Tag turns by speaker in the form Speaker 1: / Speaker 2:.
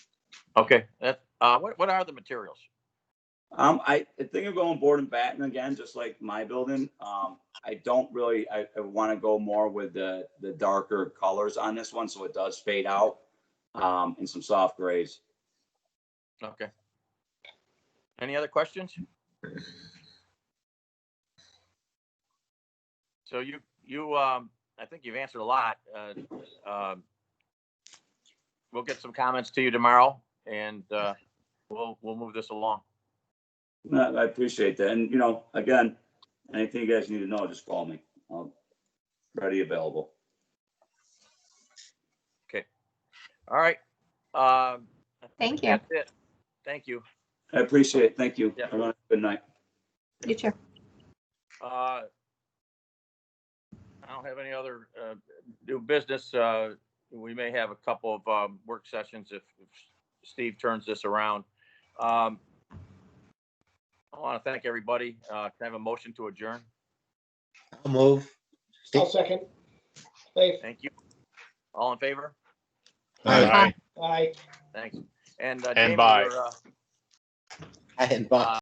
Speaker 1: Okay, that, uh, what, what are the materials?
Speaker 2: Um, I, I think of going board and batten again, just like my building. Um, I don't really, I, I wanna go more with the, the darker colors on this one, so it does fade out. Um, and some soft grays.
Speaker 1: Okay. Any other questions? So you, you, um, I think you've answered a lot. Uh, um, We'll get some comments to you tomorrow and, uh, we'll, we'll move this along.
Speaker 2: No, I appreciate that. And, you know, again, anything you guys need to know, just call me. I'm ready, available.
Speaker 1: All right. Um, I
Speaker 3: Thank
Speaker 1: think
Speaker 3: you.
Speaker 1: That's it. Thank you.
Speaker 2: I appreciate it. Thank you.
Speaker 1: Yeah.
Speaker 2: Everyone, have a good night.
Speaker 3: You too.
Speaker 1: Uh, I don't have any other uh, new business. Uh, We may have a couple of um, work sessions if if Steve turns this around. Um, I want to thank everybody. Uh, Can I have a motion to adjourn?
Speaker 4: I'll move.
Speaker 5: I'll second. Dave,
Speaker 1: Thank you. All in favor?
Speaker 6: Aye.
Speaker 5: aye.
Speaker 1: Thanks. And. uh,
Speaker 6: And
Speaker 1: Jamie,
Speaker 6: bye.
Speaker 1: we're, uh,
Speaker 4: I invite.